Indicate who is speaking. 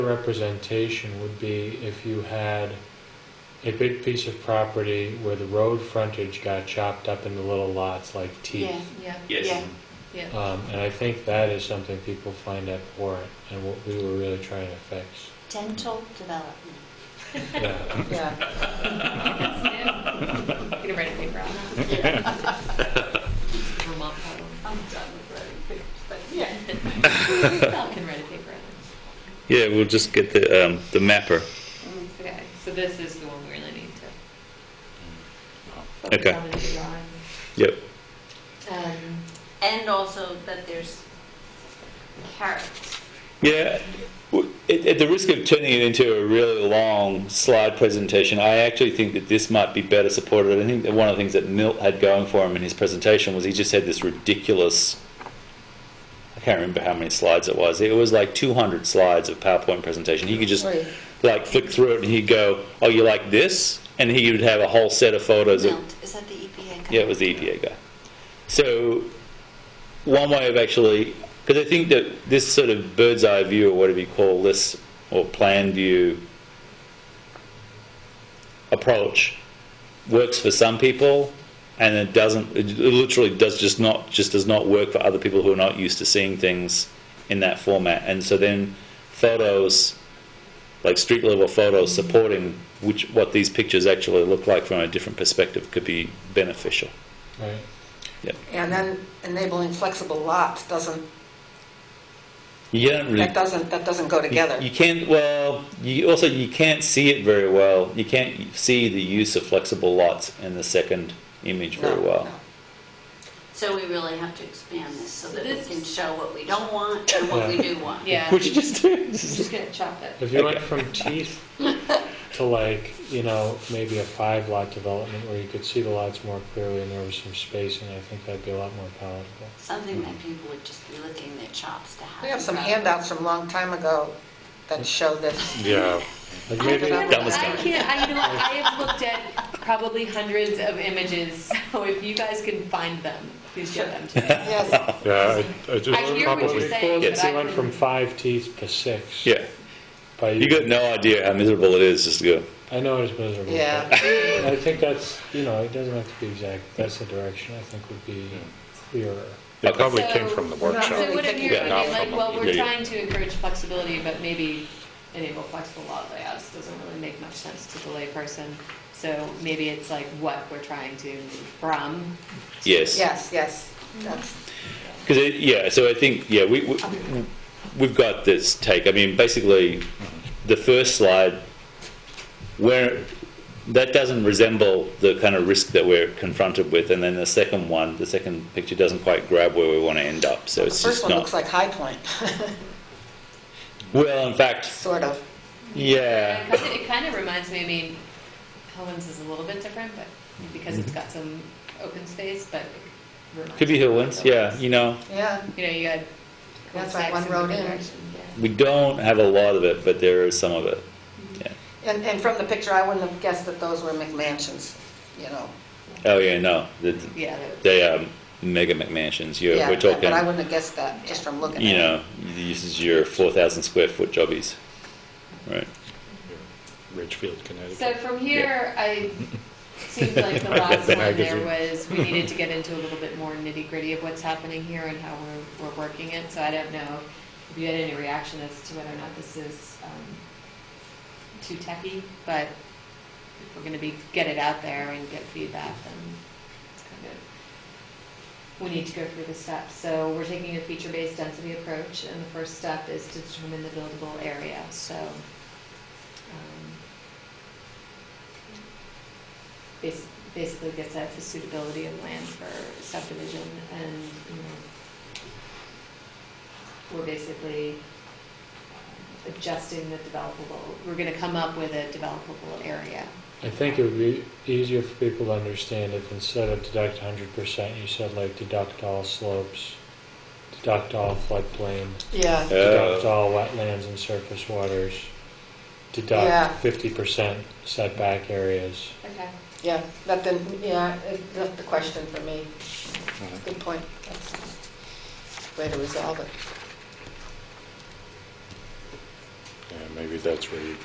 Speaker 1: representation would be if you had a big piece of property where the road frontage got chopped up into little lots like
Speaker 2: Yeah,
Speaker 1: teeth.
Speaker 3: Yeah,
Speaker 2: yeah.
Speaker 4: Yes.
Speaker 3: yeah.
Speaker 1: Um, and I think that is something people find abhorrent and what we were really trying to fix.
Speaker 2: Dental development.
Speaker 1: Yeah.
Speaker 5: Yeah,
Speaker 3: Get a writing paper out. Vermont problem.
Speaker 5: I'm done with writing papers, but yeah.
Speaker 3: Val can write a paper out.
Speaker 4: Yeah, we'll just get the, um, the mapper.
Speaker 3: Okay, so this is the one we really need to. focus
Speaker 4: Okay.
Speaker 3: on and draw on.
Speaker 4: Yep.
Speaker 3: Um,
Speaker 2: And also that there's carrots.
Speaker 4: Yeah, w- at, at the risk of turning it into a really long slide presentation, I actually think that this might be better supported. I think that one of the things that Milt had going for him in his presentation was he just had this ridiculous. I can't remember how many slides it was. It was like 200 slides of PowerPoint presentation. He could just
Speaker 5: Right.
Speaker 4: like flick through it and he'd go, "Oh, you like this?" And he would have a whole set of photos of
Speaker 2: Milt, is that the E EPA company?
Speaker 4: Oh, yeah, it was the EPA guy. So, one way of actually, because I think that this sort of bird's eye view, or whatever you call this, or plan view approach, works for some people, and it doesn't. It literally does just not just does not work for other people who are not used to seeing things in that format. And so then, photos like street level photos supporting which what these pictures actually look like from a different perspective could be beneficial.
Speaker 1: Right.
Speaker 5: And then enabling flexible lots doesn't,
Speaker 4: You don't really.
Speaker 5: that doesn't, that doesn't go together.
Speaker 4: You, you can't. Well, you also you can't see it very well. You can't see the use of flexible lots in the second image
Speaker 5: No,
Speaker 4: very well.
Speaker 5: no.
Speaker 2: So we really have to expand this so that we
Speaker 3: This
Speaker 2: can
Speaker 3: is-
Speaker 2: show what we don't want and what we do want.
Speaker 3: Yeah,
Speaker 4: Which you just do.
Speaker 3: I'm just gonna chop it.
Speaker 1: If you went from teeth to like, you know, maybe a five lot development where you could see the lots more clearly and there was some spacing, I think that'd be a lot more palatable.
Speaker 2: Something that people would just be licking their chops to have.
Speaker 5: We have some
Speaker 2: rather-
Speaker 5: handouts from a long time ago that show this.
Speaker 4: yeah.
Speaker 1: Like
Speaker 5: I
Speaker 1: maybe,
Speaker 5: don't
Speaker 4: That was
Speaker 3: I
Speaker 4: good.
Speaker 3: can't, I, you know, what, I have looked at probably hundreds of images, so if you guys can find them, please show them to me.
Speaker 5: Yes,
Speaker 6: Yeah, I, I just
Speaker 3: I hear what
Speaker 1: what
Speaker 3: you're
Speaker 1: we
Speaker 6: probably.
Speaker 3: saying, but
Speaker 1: call
Speaker 3: I
Speaker 1: it, went
Speaker 3: couldn't-
Speaker 1: from five teeth to six.
Speaker 4: Yeah.
Speaker 1: By
Speaker 4: You got no idea how miserable it is just to go.
Speaker 1: I know it's miserable.
Speaker 5: yeah.
Speaker 1: but I think that's, you know, it doesn't have to be exact. That's the direction I think would be clearer.
Speaker 6: It probably
Speaker 3: So-
Speaker 6: came from the
Speaker 5: We're not
Speaker 6: workshop.
Speaker 3: So
Speaker 5: really
Speaker 3: what if
Speaker 5: thinking
Speaker 3: you're,
Speaker 4: about
Speaker 6: it.
Speaker 3: like, well, we're
Speaker 4: Yeah, yeah.
Speaker 3: trying to encourage flexibility, but maybe enable flexible lot layouts doesn't really make much sense to the layperson. So maybe it's like what we're trying to move from.
Speaker 4: Yes.
Speaker 5: Yes, yes, that's,
Speaker 4: Because yeah, so I think yeah, we, we we've got this take. I mean, basically, the first slide where that doesn't resemble the kind of risk that we're confronted with, and then the second one, the second picture doesn't quite grab where we want to end up. So
Speaker 5: the
Speaker 4: it's just
Speaker 5: first one
Speaker 4: not.
Speaker 5: looks like High Point,
Speaker 4: well, in fact,
Speaker 5: sort of.
Speaker 3: It
Speaker 4: yeah,
Speaker 3: kind of- it kind of reminds me, I mean, Hellman's is a little bit different, but because it's got some open space, but. it reminds
Speaker 4: could be
Speaker 3: me of
Speaker 4: Hillwinds. Yeah,
Speaker 3: Hillwinds.
Speaker 4: you know,
Speaker 5: Yeah,
Speaker 3: You know, you got.
Speaker 5: That's like
Speaker 3: cul-de-sacs
Speaker 5: one
Speaker 3: in
Speaker 5: road
Speaker 3: different
Speaker 5: in.
Speaker 3: directions, yeah.
Speaker 4: we don't have a lot of it, but there is some of it. Yeah.
Speaker 5: and, and from the picture, I wouldn't have guessed that those were McMansions, you know.
Speaker 4: Oh yeah, no, the,
Speaker 3: Yeah, that-
Speaker 4: they are mega McMansions. You're,
Speaker 5: Yeah,
Speaker 4: we're
Speaker 5: but-
Speaker 4: talking.
Speaker 5: But I wouldn't have guessed that, just from looking at it.
Speaker 4: you know, this is your 4,000 square foot jobbies. Right.
Speaker 6: Ridgefield,
Speaker 3: So
Speaker 6: Connecticut.
Speaker 3: from here, I, seems like the
Speaker 6: I got
Speaker 3: last
Speaker 6: the
Speaker 3: one there
Speaker 6: magazine.
Speaker 3: was, we needed to get into a little bit more nitty gritty of what's happening here and how we're, we're working it, so I don't know if you had any reaction as to whether or not this is, um, too techy, but if we're gonna be, get it out there and get feedback, then it's kind of, we need to go through the steps. So we're taking a feature-based density approach, and the first step is to determine the buildable area, so, um, bas- basically gets at the suitability of land for subdivision and, you know, we're basically um, adjusting the developable, we're gonna come up with a developable area.
Speaker 1: I think it would be easier for people to understand if instead of deduct hundred percent, you said like deduct all slopes, deduct all floodplain,
Speaker 5: Yeah.
Speaker 1: deduct
Speaker 4: Uh,
Speaker 1: all wetlands and surface waters,
Speaker 5: Yeah.
Speaker 1: deduct fifty percent setback areas.
Speaker 3: Okay.
Speaker 5: Yeah, that didn't, yeah, it left the question for me. Good point. That's a Way to resolve it.
Speaker 6: Yeah, maybe that's where you